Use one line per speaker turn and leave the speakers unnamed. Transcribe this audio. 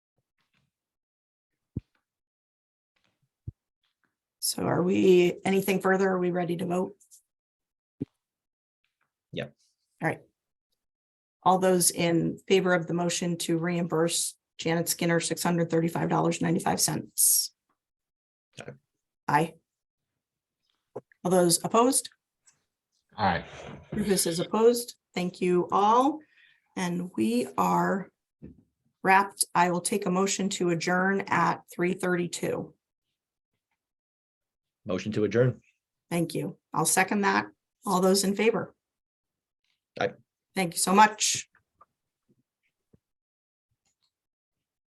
So are we, anything further? Are we ready to vote?
Yep.
All right. All those in favor of the motion to reimburse Janet Skinner six hundred thirty-five dollars ninety-five cents?
Aye.
Aye. All those opposed?
Aye.
Rufus is opposed. Thank you all. And we are wrapped. I will take a motion to adjourn at three thirty-two.
Motion to adjourn.
Thank you. I'll second that. All those in favor?
Aye.
Thank you so much.